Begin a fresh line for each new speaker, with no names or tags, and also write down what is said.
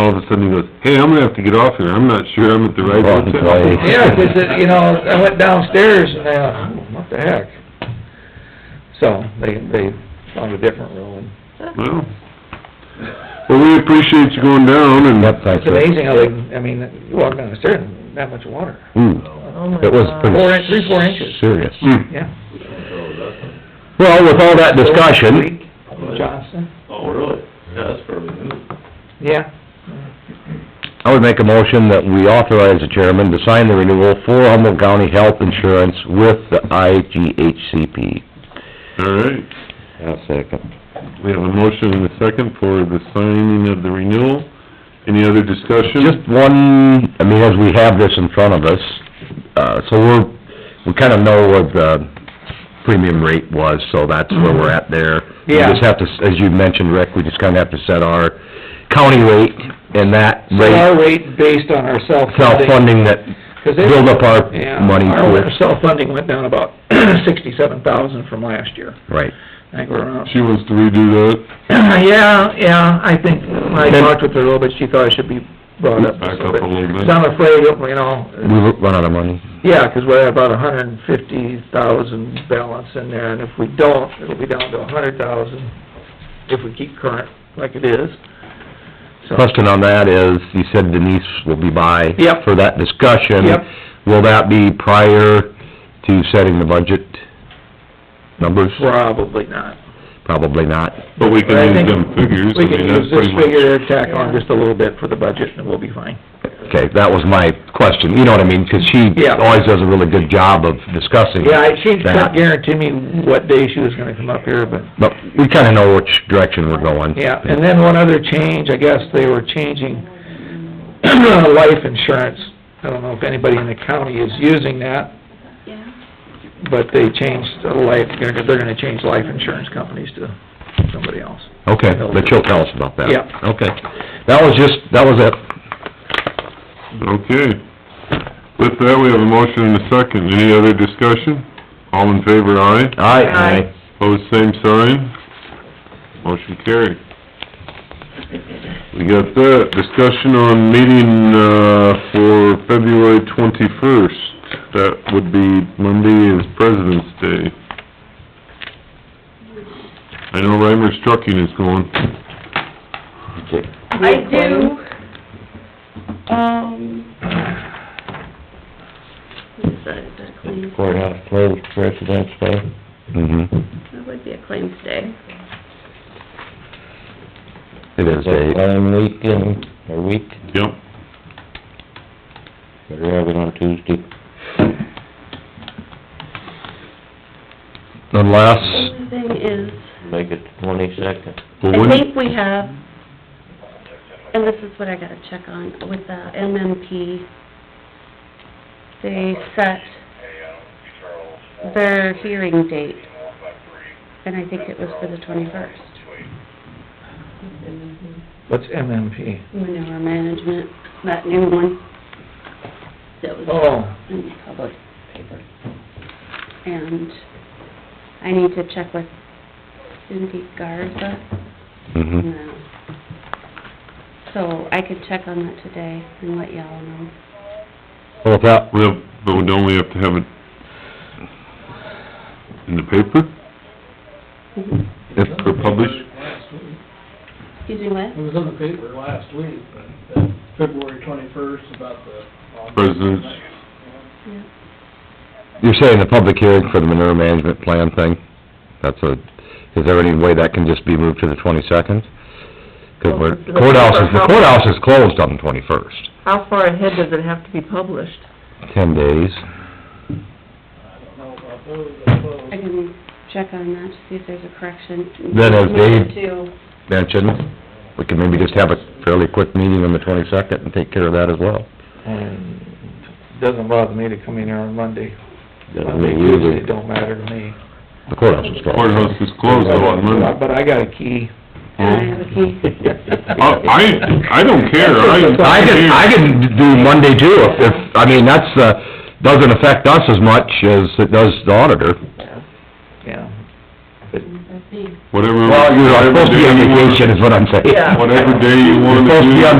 all of a sudden he goes, hey, I'm gonna have to get off here, I'm not sure I'm at the right
Wrong
hotel.
place.
Yeah, 'cause it, you know, I went downstairs and, uh, what the heck? So, they, they found a different room.
Well, well, we appreciate you going down and,
Yep, thanks.
It's amazing how they, I mean, you walk down the stairs and that much water.
Oh, my
Hmm, it was pretty...
Four in- three, four inches.
Serious.
Mm. Hmm.
Yeah.
Well, with all that discussion,
Johnson,
Oh, really? Yeah, that's fairly new.
yeah.
I would make a motion that we authorize the chairman to sign the renewal for Humboldt County Health Insurance with the IGHCP.
all right.
I'll second.
We have a motion and a second for the signing of the renewal. Any other discussion?
Just one, I mean, as we have this in front of us, uh, so we're, we kind of know what the premium rate was, so that's where we're at there.
Yeah.
We just have to, as you mentioned, Rick, we just kind of have to set our county rate and that
So our
rate,
rate based on our self-funding.
self-funding that
'cause they-
build up our
Yeah,
money
Our
for.
self-funding went down about sixty-seven thousand from last year.
Right.
I think we're around
She wants to redo that.
Yeah, yeah, I think, when I
Then-
talked with her a little bit, she thought it should be brought up
Back
just
up a little bit.
'Cause I'm afraid, of, you know,
We run out of money.
yeah, 'cause we're at about a hundred and fifty thousand balance in there, and if we don't, it'll be down to a hundred thousand if we keep current like it is. So,
Question on that is, you said Denise will be by.
Yep.
For that discussion.
Yep.
Will that be prior to setting the budget numbers?
probably not.
Probably not.
But we
But I
can use
think
them figures, I
We can
mean, that's
use this
pretty much,
figure, tack on just a little bit for the budget, and we'll be fine.
Okay, that was my question, you know what I mean, 'cause she
Yeah.
always does a really good job of discussing
Yeah, I- she couldn't
that.
guarantee me what day she was gonna come up here, but
But we kinda know which direction we're going.
Yeah, and then one other change, I guess they were changing life insurance. I don't know if anybody in the county is using that,
Yeah,
but they changed the life, they're gonna- they're gonna change life insurance companies to somebody else.
Okay, but she'll tell us about that.
Yeah.
Okay, that was just, that was it.
okay. With that, we have a motion and a second. Any other discussion? All in favor, aye.
Aye.
Aye.
Pose same sign. Motion carried. We got that. Discussion on meeting, uh, for February twenty-first. That would be, Monday is President's Day. I know Reimer's Trucking is going.
I do, um, what is that, is that a claim?
Courthouse closed, President's Day. Mm-hmm,
That would be a claims day.
it is a...
One week in, a week,
Yep.
better have it on Tuesday.
The
Unless,
only thing is,
Make it twenty-second.
Well,
I
when-
think we have, and this is what I gotta check on, with the MMP, they set their hearing date, and I think it was for the twenty-first.
What's MMP?
Manure management, that new one. That was.
Oh,
in the public paper. And I need to check with Cindy Garza.
Hmm.
mhm,
No. So I could check on that today and let y'all know.
well, if that,
Well, but we don't we have to have it in the paper
if,
or published?
Excuse me, what?
It was in the paper last week, uh, February twenty-first, about the...
President's-
Yeah.
you're saying the public hearing for the manure management plan thing, that's a, is there any way that can just be moved to the twenty-second? 'Cause we're, courthouse is, the courthouse is closed on the twenty-first,
How far ahead does it have to be published?
ten days.
I don't know about those, I suppose.
I can check on that to see if there's a correction.
Then as
Move
Dave-
it to-
Mentioned, we can maybe just have a fairly quick meeting on the twenty-second and take care of that as well.
and doesn't bother me to come in here on Monday.
Doesn't
Monday,
mean you
Tuesday,
do.
don't matter to me.
The courthouse is closed.
Courthouse is closed on Monday.
But I got a key.
And I have a key.
Uh, I, I don't care, I,
I can, I can do Monday too, if, if, I mean, that's, uh, doesn't affect us as much as it does the auditor.
Yeah.
That's me.
whatever.
Well, you're supposed to be on vacation is what I'm saying.
Whatever day you wanna do.
You're supposed to be on